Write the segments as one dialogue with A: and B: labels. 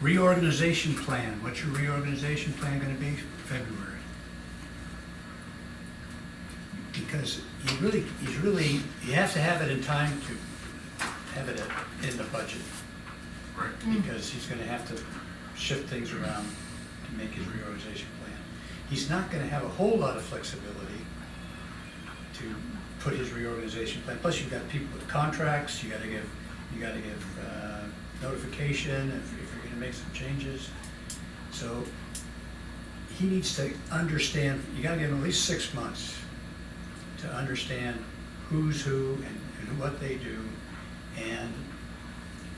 A: Reorganization plan, what's your reorganization plan gonna be? February. Because you really, you really, you have to have it in time to have it in the budget,
B: Right. Mm-hmm.
A: because he's gonna have to shift things around to make his reorganization plan. He's not gonna have a whole lot of flexibility to put his reorganization plan, plus you've got people with contracts, you gotta give, you gotta give uh, notification if if you're gonna make some changes. So he needs to understand, you gotta give him at least six months to understand who's who and and what they do, and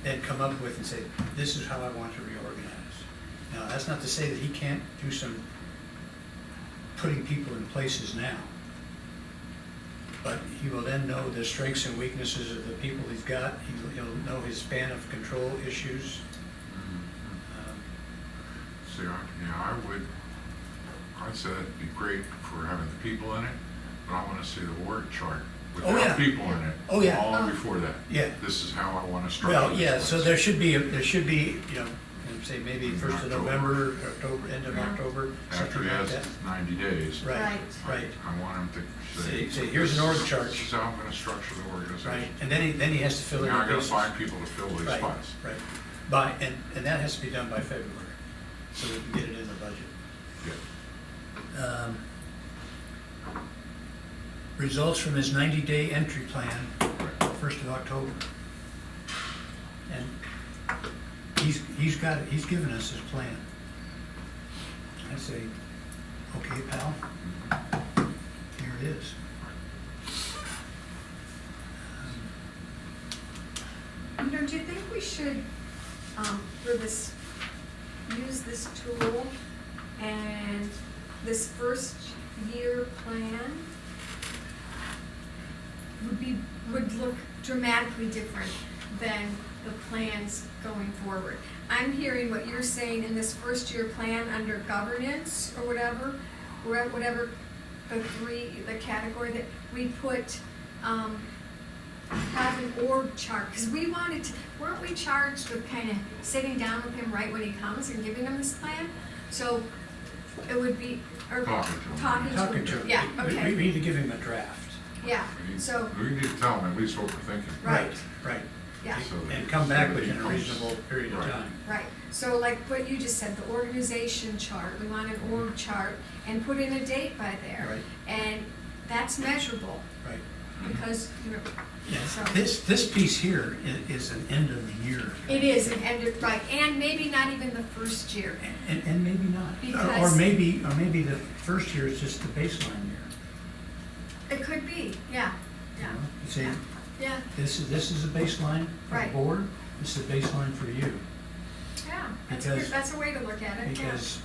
A: then come up with and say, this is how I want to reorganize. Now, that's not to say that he can't do some putting people in places now. But he will then know the strengths and weaknesses of the people he's got, He'll- he'll know his span of control issues.
B: Mhm.
A: Um,
B: See, I, yeah, I would, I'd say that'd be great for having the people in it, but I wanna see the org chart
A: Oh, yeah.
B: without people in it.
A: Oh, yeah.
B: All
C: Oh.
B: before that.
A: Yeah.
B: This is how I wanna structure
A: Well,
B: this.
A: yeah, so
B: place.
A: there should be, a- there should be, you know, I'd say maybe first of
B: October.
A: November, October, end of
B: Yeah.
A: October,
B: After
A: something
B: he
A: like
B: has
A: that.
B: ninety days.
A: Right,
C: Right.
A: right,
B: I I want him to say.
A: Say- say, here's an org chart.
B: This is how I'm gonna structure the
A: right.
B: organization.
A: And then he, then he has to fill in
B: Now
A: the
B: I gotta
A: pieces.
B: find people to fill these
A: Right,
B: spots.
A: right. By, and, and that has to be done by February, so we can get it in the budget.
B: Yeah.
A: Um, Results from his ninety-day entry plan,
B: Right.
A: first of October. And he's, he's got, it. he's given us his plan. I say, okay, pal,
B: Mm-hmm.
A: here it is. Um,
C: You know, do you think we should, um, for this, use this tool and this first year plan would be, would look dramatically different than the plans going forward? I'm hearing what you're saying in this first year plan under governance or whatever, where- whatever the three, the category that we put, um, have an org chart, because we wanted to, weren't we charged with kind of sitting down with him right when he comes and giving him this plan? So it would be, or
B: Talking to him.
C: talking to
A: Talking to
C: him,
A: him.
C: yeah,
A: We- We, we
C: okay,
A: need to give him a draft.
C: yeah,
B: We need-
C: so,
B: We need to tell them at least what we're thinking.
C: Right.
A: Right.
C: yeah,
B: So that-
A: And come back
B: so that he
A: within a
B: comes-
A: reasonable period of
B: Right.
A: time.
C: right. So like what you just said, the organization chart, we want an org chart and put in a date by there.
A: Right.
C: And that's measurable,
A: Right.
C: because, you know,
A: Yes,
C: so.
A: this, this piece here i- is an end of the year.
C: It is, and, and, right, and maybe not even the first year.
A: And, and maybe not. Or- Or
C: Because-
A: maybe, or maybe the first year is just the baseline year.
C: It could be, yeah,
A: you
C: yeah,
A: know? You say,
C: yeah, yeah,
A: this is, this is a baseline for the
C: Right.
A: board, this is a baseline for you.
C: yeah. That's a,
A: Because-
C: good- that's a way to look at it, yeah.
A: Because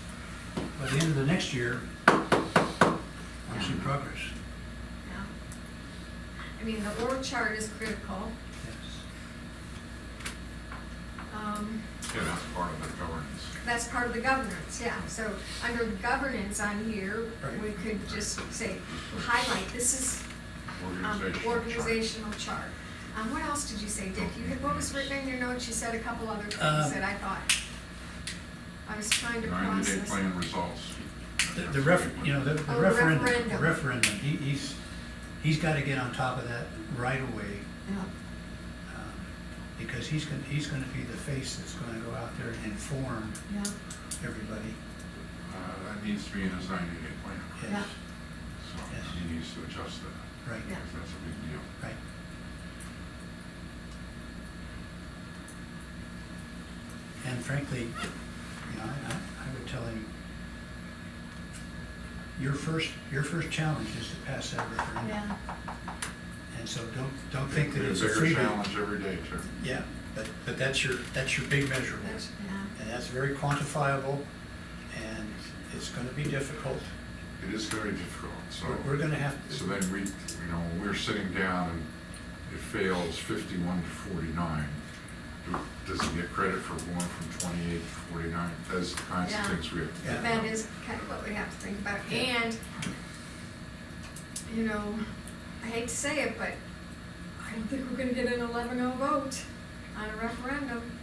A: by the end of the next year, I'm seeing progress.
C: yeah. I mean, the org chart is critical.
A: Yes.
C: Um,
B: Mm-hmm. Yeah, that's part of the governance.
C: that's part of the governance, yeah. So under governance on here,
A: Right.
C: we could just say, highlight, this is um,
B: Organizational chart.
C: organizational chart. Um, what else did you say, Dick? You, had- what was written in your notes? You said a couple other things
A: Um,
C: that I thought. I was trying to process.
B: Ninety-day plan results. Uh,
A: The- The ref, you know, the
C: Oh,
A: the
C: the
A: referendum, the
C: referendum.
A: referendum, he, he's, he's gotta get on top of that right away.
C: Yeah.
A: um, Because he's gonna, he's gonna be the face that's gonna go out there and inform
C: Yeah,
A: everybody.
B: Uh, that needs to be in his ninety-day plan,
A: Yes,
B: so
A: Yes.
B: he needs to adjust that,
A: right,
C: Yeah.
B: because that's a big deal.
A: right. And frankly, you know, I, I- I would tell him, your first, your first challenge is to pass that referendum.
C: yeah,
A: And so don't, don't think that
B: Bigger-
A: it's a freebie.
B: Bigger challenge every day, too.
A: Yeah, but, but that's your, that's your big measurable.
C: that's, yeah.
A: And that's very quantifiable, and it's gonna be difficult.
B: It is very difficult, so.
A: We're- We're gonna have,
B: So then we, you know, when we're sitting down and it fails fifty-one to forty-nine. do- Does he get credit for going from twenty-eight to forty-nine? Those are the kinds of
C: Yeah.
B: things we have. to
A: Yeah.
B: think
C: That
B: about.
C: is kind of what we have to think about,
A: Yeah.
C: and, you know, I hate to say it, but I don't think we're gonna get an eleven oh vote on a referendum.